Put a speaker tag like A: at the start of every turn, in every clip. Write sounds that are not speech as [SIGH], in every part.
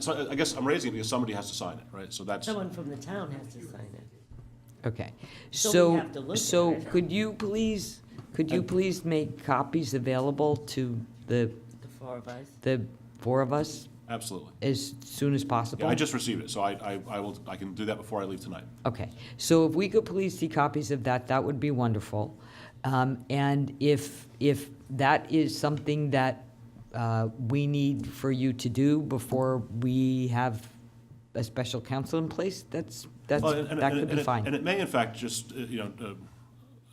A: So I- I guess I'm raising it because somebody has to sign it, right? So that's,
B: Someone from the town has to sign it.
C: Okay,
B: So we
C: so,
B: have to look at
C: so
B: it. Uh,
C: could you please, could you please make copies available to the,
B: The four of us.
C: the four of us
A: absolutely.
C: as soon as possible?
A: Yeah, I just received it, so I, I, I will, I can do that before I leave tonight.
C: Okay, so if we could please see copies of that, that would be wonderful. Um, and if, if that is something that, uh, we need for you to do before we have a special counsel in place, that's, that's,
A: Well, and- and-
C: that
A: and- and
C: could be
A: it- And
C: fine.
A: it may in fact just, uh, you know, uh,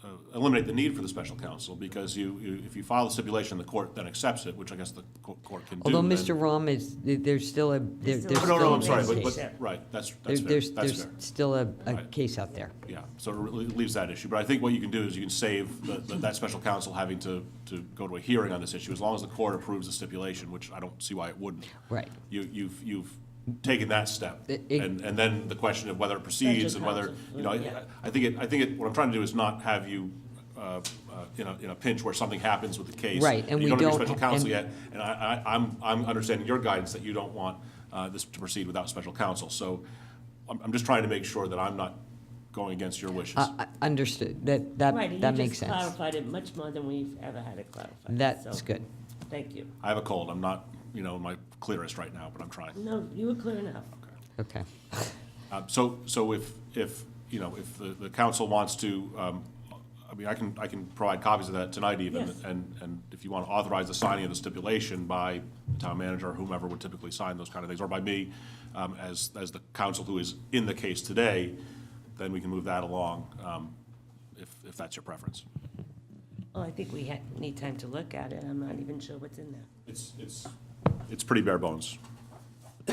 A: uh, eliminate the need for the special counsel, because you, you- if you file the stipulation, the court then accepts it, which I guess the co- court can do.
C: Although
A: then-
C: Mr. Rom is, there- there's still a, there-
B: still
C: there's
A: Oh,
C: still.
A: No, no, I'm
C: a
A: sorry, but,
C: case.
A: but, right, that's,
C: There-
A: that's fair,
C: There's,
A: that's
C: there's
A: fair.
C: still a, a
A: Right.
C: case out there.
A: Yeah, so it re- leaves that issue, but I think what you can do is you can save the- the- that special counsel having to, to go to a hearing on this issue, as long as the court approves the stipulation, which I don't see why it wouldn't.
C: Right.
A: You, you've, you've taken that step,
C: It- it-
A: and, and then the question of whether it proceeds and whether,
B: counsel,
A: you know,
B: yeah.
A: I, I think it, I think it, what I'm trying to do is not have you, uh, uh, in a, in a pinch where something happens with the case.
C: Right, and we
A: You don't have
C: don't
A: your special
C: ha-
A: counsel
C: and-
A: yet, and I, I, I'm, I'm understanding your guidance that you don't want, uh, this to proceed without special counsel, so I'm, I'm just trying to make sure that I'm not going against your wishes.
C: Uh, uh, Understood, that,
B: Right,
C: that,
B: and
C: that
B: you just
C: makes sense.
B: clarified it much more than we've ever had it clarified.
C: That's
B: so
C: good.
B: Thank you.
A: I have a cold. I'm not, you know, my clearest right now, but I'm trying.
B: No, you were clear enough.
C: Okay,
A: Uh, So, so if, if, you know, if the, the council wants to, um, I mean, I can, I can provide copies of that tonight even.
B: Yes.
A: And, and if you want to authorize the signing of the stipulation by the town manager or whomever would typically sign those kind of things, or by me, um, as, as the council who is in the case today, then we can move that along, um, if, if that's your preference.
B: Well, I think we had, need time to look at it. I'm not even sure what's in there.
A: It's, it's, it's pretty bare bones. [COUGHS]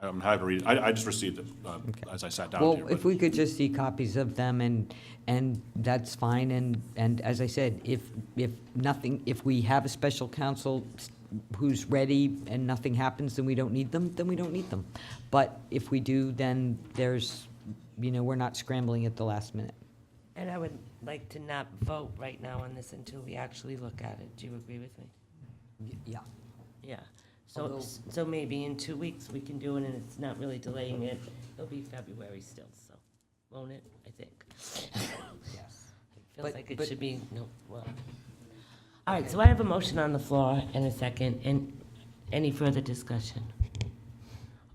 A: I'm happy to read it. I, I just received it uh, as I sat down
C: well,
A: here.
C: if
A: but-
C: we could just see copies of them and, and that's fine, and, and as I said, if, if nothing, if we have a special counsel s- who's ready and nothing happens, then we don't need them, then we don't need them. But if we do, then there's, you know, we're not scrambling at the last minute.
B: And I would like to not vote right now on this until we actually look at it. Do you agree with me?
C: Yeah.
B: Yeah. So,
C: Although-
B: so maybe in two weeks we can do it and it's not really delaying it. It'll be February still, so, won't it? I think.
C: Yes.
B: Feels
C: But-
B: like it
C: but-
B: should be, no, well. All right, so I have a motion on the floor and a second, and any further discussion?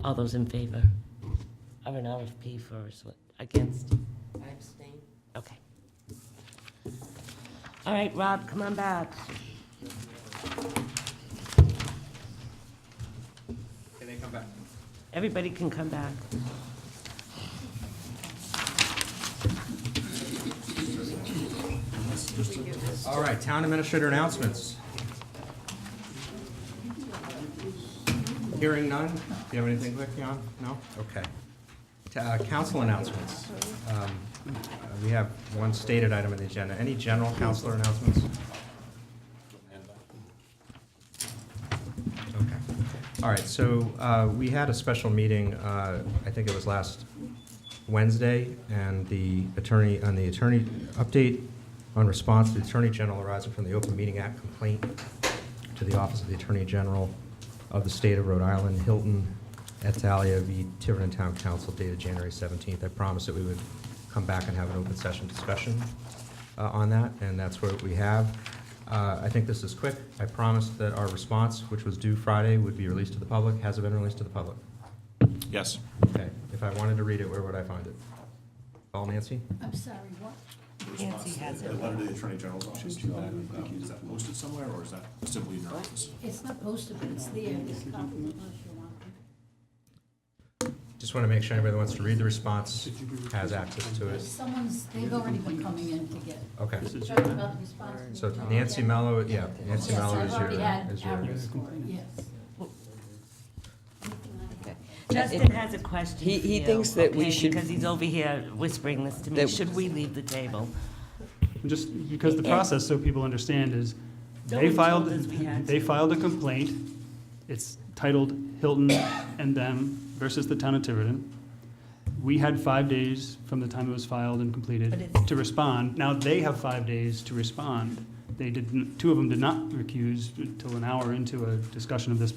B: All those in favor of an RFP for, us, what- against? I abstain. Okay. All right, Rob, come on back.
D: Can they come back?
B: Everybody can come back.
D: All right, town administrator announcements. Hearing none? Do you have anything, Vic, Jan? No? Okay. T- uh, Council announcements. Um, uh, We have one stated item on the agenda. Any general counselor announcements? Okay. All right, so uh, we had a special meeting, uh, I think it was last Wednesday, and the attorney, on the attorney update on response to the Attorney General arising from the Open Meeting Act complaint to the Office of the Attorney General of the State of Rhode Island, Hilton, Etalia v. Tiverton Town Council dated January 17th. I promised that we would come back and have an open session discussion uh, on that, and that's what we have. Uh, I think this is quick. I promised that our response, which was due Friday, would be released to the public. Has it been released to the public?
A: Yes.
D: Okay, if I wanted to read it, where would I find it? Call Nancy?
E: I'm sorry, what?
B: Nancy has it.
A: The letter to the Attorney General's office, is that, um, is that posted somewhere, or is that simply in your office?
E: It's not posted, but it's there, it's confidential.
D: Just want to make sure anybody that wants to read the response has access to
E: If
D: it.
E: someone's, they've already been coming in to get,
D: Okay,
E: talking about the response.
D: so Nancy Mello, yeah,
E: Yes,
D: Nancy Mello
E: I've
D: is your,
E: already had
D: is your.
E: average score, yes.
B: Justin has a question
C: He- he
B: for you,
C: thinks that we
B: okay,
C: should-
B: Because he's over here whispering this to me.
C: That-
B: Should we leave the table?
F: Just because the process, so people understand, is
B: No
F: they
B: one
F: filed,
B: told us we had to.
F: they filed a complaint. It's titled Hilton and Them versus the Town of Tiverton. We had five days from the time it was filed and
B: But
F: completed
B: it's-
F: to respond. Now they have five days to respond. They did, two of them did not recuse until an hour into a discussion of this